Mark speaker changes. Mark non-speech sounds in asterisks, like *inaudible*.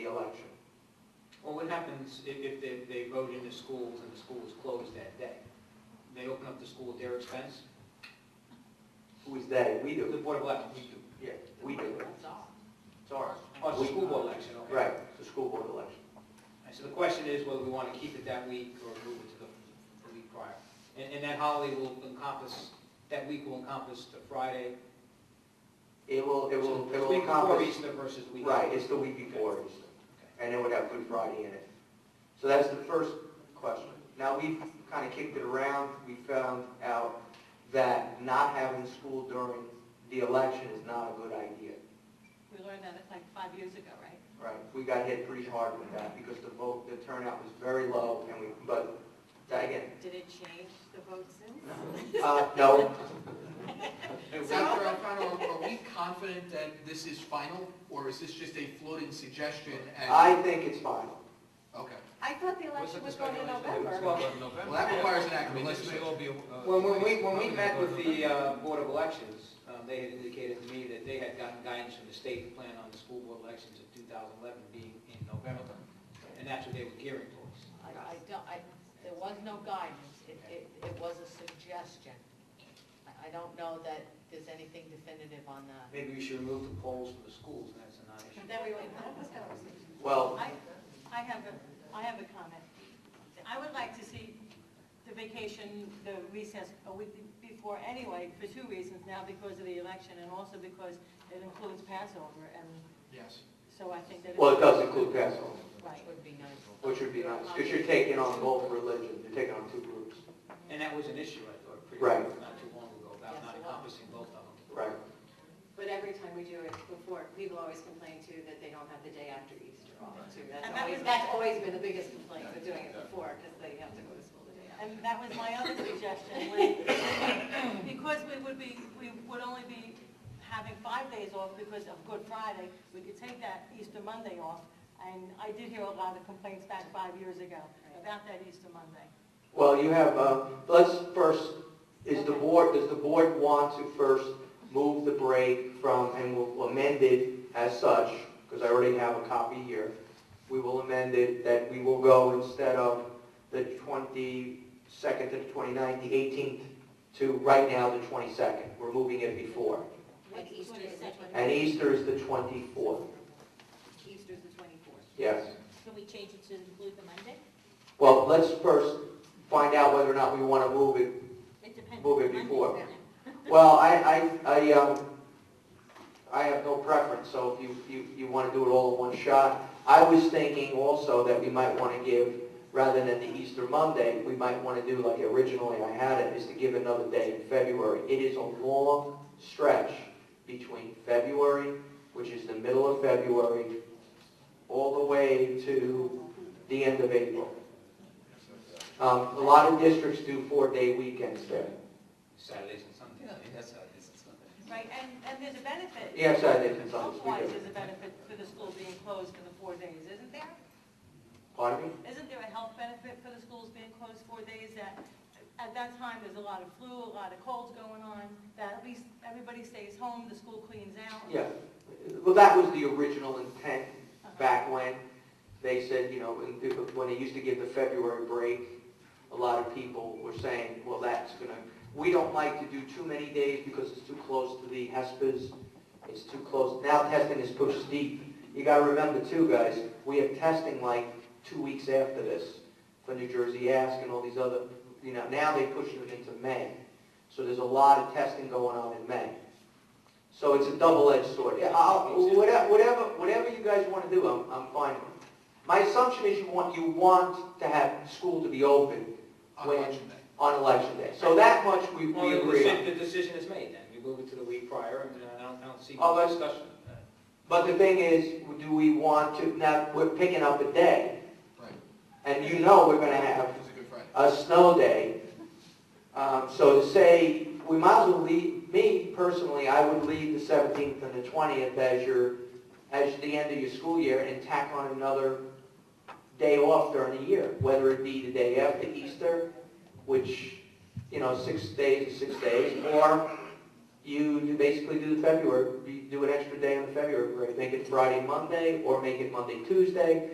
Speaker 1: election.
Speaker 2: Well, what happens if, if they, they vote in the schools and the school is closed that day? They open up the school at their expense?
Speaker 1: Who is that? We
Speaker 2: The
Speaker 1: do.
Speaker 2: Board of Elections, we do.
Speaker 1: Yeah, we do it.
Speaker 3: That's all.
Speaker 1: It's ours.
Speaker 2: Oh, it's the
Speaker 1: We-
Speaker 2: school board election, okay.
Speaker 1: Right, it's a school board election.
Speaker 2: And so the question is whether we want to keep it that week or move it to the, the week prior. And, and that holiday will encompass, that week will encompass the Friday.
Speaker 1: It will, it
Speaker 2: so
Speaker 1: will, it
Speaker 2: the
Speaker 1: will accomplish.
Speaker 2: Week before Easter versus the week.
Speaker 1: Right,
Speaker 2: after.
Speaker 1: it's the week before
Speaker 2: Okay.
Speaker 1: Easter. and it would have Good Friday in it. So that's the first question. Now, we've kind of kicked it around, we found out that not having school during the election is not a good idea,
Speaker 3: We learned that like five years ago, right?
Speaker 1: right? We got hit pretty hard with that because the vote, the turnout was very low, and we, but, again,
Speaker 3: Did it change the vote soon?
Speaker 1: uh, no,
Speaker 4: Now,
Speaker 3: So-
Speaker 4: Dr. Alfano, are we confident that this is final, or is this just a floating suggestion? and-
Speaker 1: I think it's final.
Speaker 4: Okay,
Speaker 3: I thought the election was going in November.
Speaker 2: Well,
Speaker 4: well, that requires an act of
Speaker 5: Unless they all
Speaker 4: legislation.
Speaker 5: be. uh,
Speaker 2: When, when we, when we met with the, uh, Board of Elections, um, they had indicated to me that they had gotten guidance from the state to plan on the school board elections of two thousand eleven being in November. And that's what they were gearing towards.
Speaker 3: I, I don't, I, there was no guidance, it, it, it was a suggestion. I, I don't know that there's anything definitive on that.
Speaker 2: Maybe we should remove the polls from the schools, and that's a non-issue.
Speaker 3: Then we went,
Speaker 1: Well,
Speaker 6: I, I have a, I have a comment. I would like to see the vacation, the recess a week before anyway, for two reasons, now because of the election and also because it includes Passover, and
Speaker 4: Yes.
Speaker 6: so I think that.
Speaker 1: well, it does include Passover,
Speaker 3: Which would be nice.
Speaker 1: which would be nice, because you're taking on both religions, you're taking on two groups.
Speaker 2: And that was an issue, I thought, pretty,
Speaker 1: Right.
Speaker 2: not too long ago, about not encompassing both of them.
Speaker 1: Right.
Speaker 7: But every time we do it before, people always complain too that they don't have the day after Easter off too.
Speaker 6: And
Speaker 7: That's
Speaker 6: that
Speaker 7: always,
Speaker 6: was-
Speaker 7: that's always been the biggest complaint with doing it before, because they have to go to school the day after.
Speaker 6: And that was my other suggestion, when- *coughs* because we would be, we would only be having five days off because of Good Friday, we could take that Easter Monday off, and I did hear a lot of complaints back five years ago about that Easter Monday.
Speaker 1: Well, you have, uh, let's first, is the board, does the board want to first move the break from, and we'll amend it as such, because I already have a copy here. We will amend it that we will go instead of the 22nd to the 29th, the 18th, to right now the 22nd. We're moving it before.
Speaker 7: Like Easter is the
Speaker 1: And Easter is the 24th,
Speaker 7: Easter's the twenty-fourth.
Speaker 1: yes.
Speaker 3: Can we change it to include the Monday?
Speaker 1: Well, let's first find out whether or not we want to move it
Speaker 3: It depends.
Speaker 1: Move it before. Well, I, I, I, um, I have no preference, so if you, you, you want to do it all in one shot. I was thinking also that we might want to give, rather than the Easter Monday, we might want to do like originally I had it, is to give another day in February. It is a long stretch between February, which is the middle of February, all the way to the end of April. Um, a lot of districts do four-day weekends there.
Speaker 2: Saturdays and Sundays. that's how it is, it's Sunday.
Speaker 6: Right, and, and there's a benefit.
Speaker 1: Yeah, Saturdays and Sundays, we
Speaker 6: Health-wise,
Speaker 1: do.
Speaker 6: there's a benefit for the school being closed for the four days, isn't there?
Speaker 1: Pardon me?
Speaker 6: Isn't there a health benefit for the schools being closed four days that, at that time, there's a lot of flu, a lot of colds going on, that at least everybody stays home, the school cleans out?
Speaker 1: Yeah. Well, that was the original intent back when. They said, you know, when when they used to give the February break, a lot of people were saying, well, that's going to, we don't like to do too many days because it's too close to the HESPA's. It's too close. Now testing is pushed deep. You got to remember too, guys, we have testing like two weeks after this for New Jersey Ask and all these other, you know, now they push it into May. So there's a lot of testing going on in May. So it's a double-edged sword. Yeah, I'll, whatever, whatever, whatever you guys want to do, I'm, I'm fine with. My assumption is you want, you want to have school to be open
Speaker 4: On
Speaker 1: When-
Speaker 4: election day.
Speaker 1: on election day. So that much we,
Speaker 2: Well,
Speaker 1: we
Speaker 2: the
Speaker 1: agree
Speaker 2: deci-
Speaker 1: on.
Speaker 2: the decision is made then, we move it to the week prior, and uh, I don't, I don't see
Speaker 1: Oh,
Speaker 2: much
Speaker 1: that's-
Speaker 2: discussion.
Speaker 1: But the thing is, do we want to, now, we're picking up a day,
Speaker 4: Right,
Speaker 1: and you know we're gonna have
Speaker 4: it's a good Friday.
Speaker 1: a snow day. Um, so to say, we might as well leave, me personally, I would leave the seventeenth and the twentieth as your, as the end of your school year and tack on another day off during the year, whether it be the day after Easter, which, you know, six days is six days, or you you do- basically do the February, you do an extra day on the February break, make it Friday, Monday, or make it Monday, Tuesday,